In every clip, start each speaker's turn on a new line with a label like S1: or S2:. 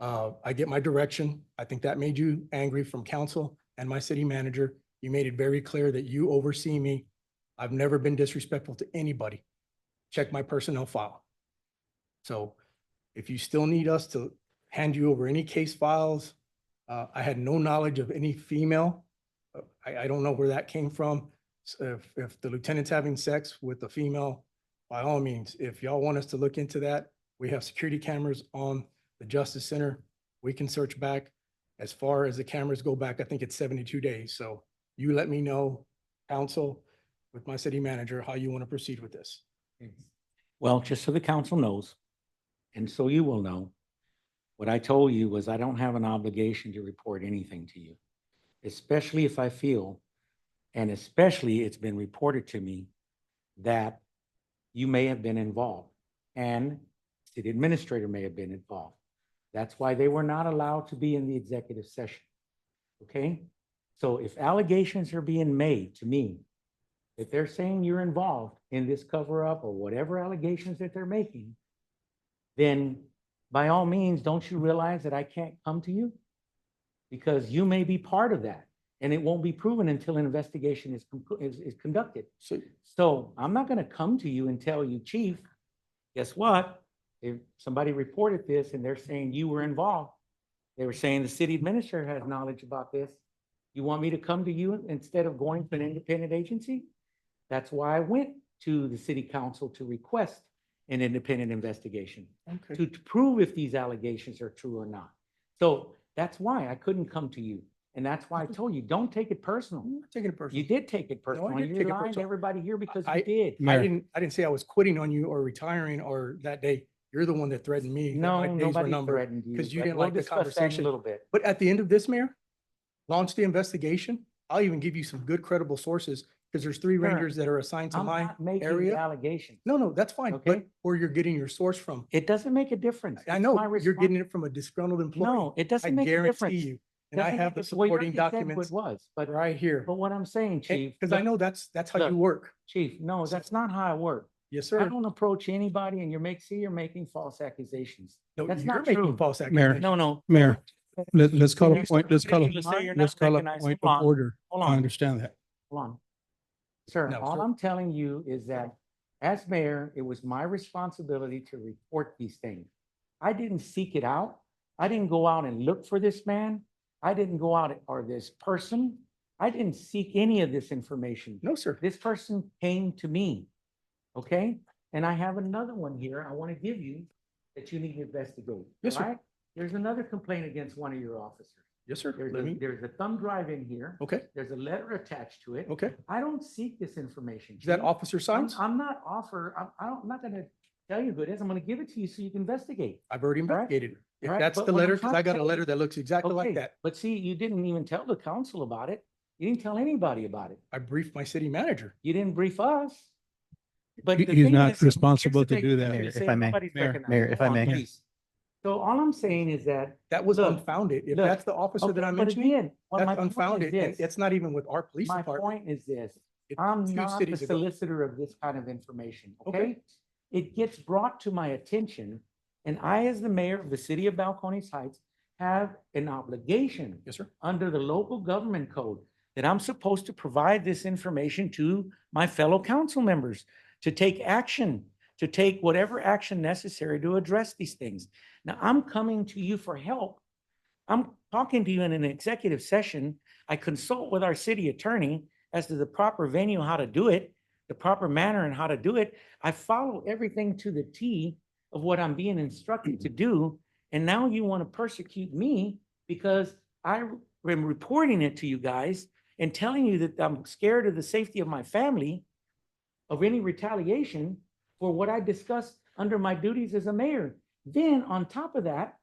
S1: Uh, I get my direction. I think that made you angry from council and my city manager. You made it very clear that you oversee me. I've never been disrespectful to anybody. Check my personnel file. So if you still need us to hand you over any case files, uh, I had no knowledge of any female. Uh, I, I don't know where that came from. So If, if the lieutenant's having sex with a female, by all means, if y'all want us to look into that, we have security cameras on the Justice Center. We can search back. As far as the cameras go back, I think it's seventy-two days. So you let me know, council, with my city manager, how you want to proceed with this.
S2: Well, just so the council knows, and so you will know, what I told you was I don't have an obligation to report anything to you, especially if I feel, and especially it's been reported to me that you may have been involved and city administrator may have been involved. That's why they were not allowed to be in the executive session. Okay? So if allegations are being made to me if they're saying you're involved in this cover up or whatever allegations that they're making, then by all means, don't you realize that I can't come to you? Because you may be part of that and it won't be proven until an investigation is, conclu- is, is conducted.
S1: So
S2: So I'm not gonna come to you and tell you, chief, guess what? If somebody reported this and they're saying you were involved, they were saying the city administrator has knowledge about this. You want me to come to you instead of going to an independent agency? That's why I went to the city council to request an independent investigation
S1: Okay.
S2: to to prove if these allegations are true or not. So that's why I couldn't come to you. And that's why I told you, don't take it personal.
S1: I'm not taking it personally.
S2: You did take it personal. and
S1: didn't
S2: You're
S1: take it
S2: lying to
S1: personal.
S2: everybody here because
S1: I-
S2: you did.
S1: I didn't, I didn't say I was quitting on you or retiring or that day. You're the one that threatened me. that
S2: No,
S1: my days were
S2: nobody
S1: numbered.
S2: threatened you.
S1: 'cause you
S2: but
S1: didn't
S2: we'll
S1: like the
S2: discuss that in a
S1: conversation.
S2: Little bit.
S1: But at the end of this, Mayor, launch the investigation. I'll even give you some good credible sources because there's three
S2: Sure.
S1: rangers that are assigned to
S2: I'm
S1: my
S2: not making the
S1: area.
S2: allegation.
S1: No, no, that's fine, but
S2: Okay.
S1: where you're getting your source from.
S2: It doesn't make a difference.
S1: I
S2: It's my
S1: know you're
S2: respons-
S1: getting it from a disgruntled employee.
S2: No, it
S1: I
S2: doesn't make a
S1: guarantee
S2: difference.
S1: you. And I
S2: Doesn't-
S1: have the
S2: well, yours
S1: supporting
S2: just said what
S1: documents
S2: Was, but,
S1: right here.
S2: but what I'm saying, chief.
S1: Because I
S2: look,
S1: know that's, that's how you
S2: look.
S1: work.
S2: Chief, no, that's not how I work.
S1: Yes,
S2: I
S1: sir.
S2: don't approach anybody and you're make, see, you're making false accusations.
S1: No,
S2: that's
S1: you're
S2: not
S1: making
S2: true.
S1: false accusations.
S2: No, no,
S3: Mayor, let, us call
S2: You're
S3: a point, let's
S2: so
S3: call a,
S2: ridiculous that you're
S3: let's
S2: not
S3: call a
S2: recognized.
S3: point
S2: Hold
S3: of
S2: on,
S3: order.
S2: hold
S3: I
S2: on,
S3: understand that.
S2: hold on. Sir,
S1: No,
S2: all
S1: sir.
S2: I'm telling you is that as mayor, it was my responsibility to report these things. I didn't seek it out. I didn't go out and look for this man. I didn't go out or this person. I didn't seek any of this information.
S1: No, sir.
S2: This person came to me, okay? And I have another one here I want to give you that you need to investigate,
S1: Yes, sir.
S2: right? There's another complaint against one of your officers.
S1: Yes, sir.
S2: There's
S1: Let
S2: a,
S1: me- Oh.
S2: there's a thumb drive in here.
S1: Okay,
S2: There's a letter attached to it.
S1: okay.
S2: I don't seek this information.
S1: Is that
S2: Chief.
S1: Officer
S2: Mm-hmm. I'm,
S1: Sines?
S2: I'm not offer, I'm, I don't, I'm not gonna tell you who it is. I'm gonna give it to you so you can investigate.
S1: I've already
S2: right.
S1: investigated. it. If
S2: All right,
S1: that's
S2: but
S1: the
S2: what I'm
S1: letter, because
S2: trying
S1: I
S2: to
S1: got a
S2: tell you-
S1: letter that looks exactly
S2: Okay,
S1: like that.
S2: But see, you didn't even tell the council about it. You didn't tell anybody about it.
S1: I briefed my city manager.
S2: You didn't brief us. But
S3: He-
S2: the
S3: he's
S2: thing
S3: not
S2: is- here's
S3: responsible
S2: the
S3: to
S2: thing,
S3: do that.
S2: you're
S3: Mayor, if
S2: saying
S4: I may.
S2: nobody's
S3: Mayor,
S2: recognized.
S4: Mayor, if I
S2: Hold on,
S4: may.
S2: please. So all I'm saying is that.
S1: That was
S2: Look,
S1: unfounded. If
S2: look,
S1: that's the officer
S2: okay,
S1: that I'm
S2: but
S1: mentioning,
S2: again, what my
S1: that's
S2: point is
S1: unfounded. And
S2: this,
S1: it's not even with our police
S2: My
S1: department.
S2: point is this,
S1: It's
S2: I'm
S1: two
S2: not the
S1: cities ago.
S2: solicitor of this kind of information,
S1: Okay.
S2: okay? It gets brought to my attention, and I, as the mayor of the city of Balcones Heights, have an obligation
S1: Yes, sir.
S2: under the local government code that I'm supposed to provide this information to my fellow council members to take action, to take whatever action necessary to address these things. Now, I'm coming to you for help. I'm talking to you in an executive session. I consult with our city attorney as to the proper venue, how to do it, the proper manner and how to do it. I follow everything to the T of what I'm being instructed to do. And now you want to persecute me because I r- am reporting it to you guys and telling you that I'm scared of the safety of my family, of any retaliation for what I discussed under my duties as a mayor. Then on top of that,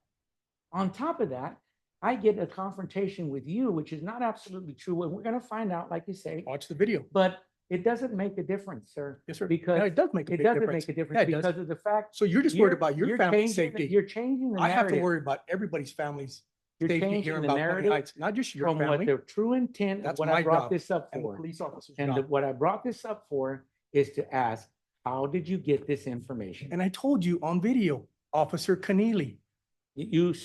S2: on top of that, I get a confrontation with you, which is not absolutely true. And we're going to find out, like you say,
S1: Watch the video.
S2: but it doesn't make a difference, sir.
S1: Yes, sir. No,
S2: Because
S1: it does make a
S2: it
S1: big
S2: doesn't make
S1: difference.
S2: a
S1: Yeah,
S2: difference
S1: it does.
S2: because of the fact.
S1: So you're just worried
S2: you're-
S1: about your
S2: you're
S1: family's
S2: changing the-
S1: safety.
S2: You're changing the
S1: I have to
S2: narrative.
S1: worry about everybody's families.
S2: You're
S1: safety here
S2: changing
S1: in
S2: the
S1: Balcony
S2: narrative
S1: Heights, not just your
S2: from what
S1: family
S2: the true intent of
S1: That's
S2: what
S1: my
S2: I brought
S1: job
S2: this up
S1: and the
S2: for.
S1: police officers.
S2: And
S1: job.
S2: the- what I brought this up for is to ask, how did you get this information?
S1: And I told you on video, Officer Keneally,
S2: You you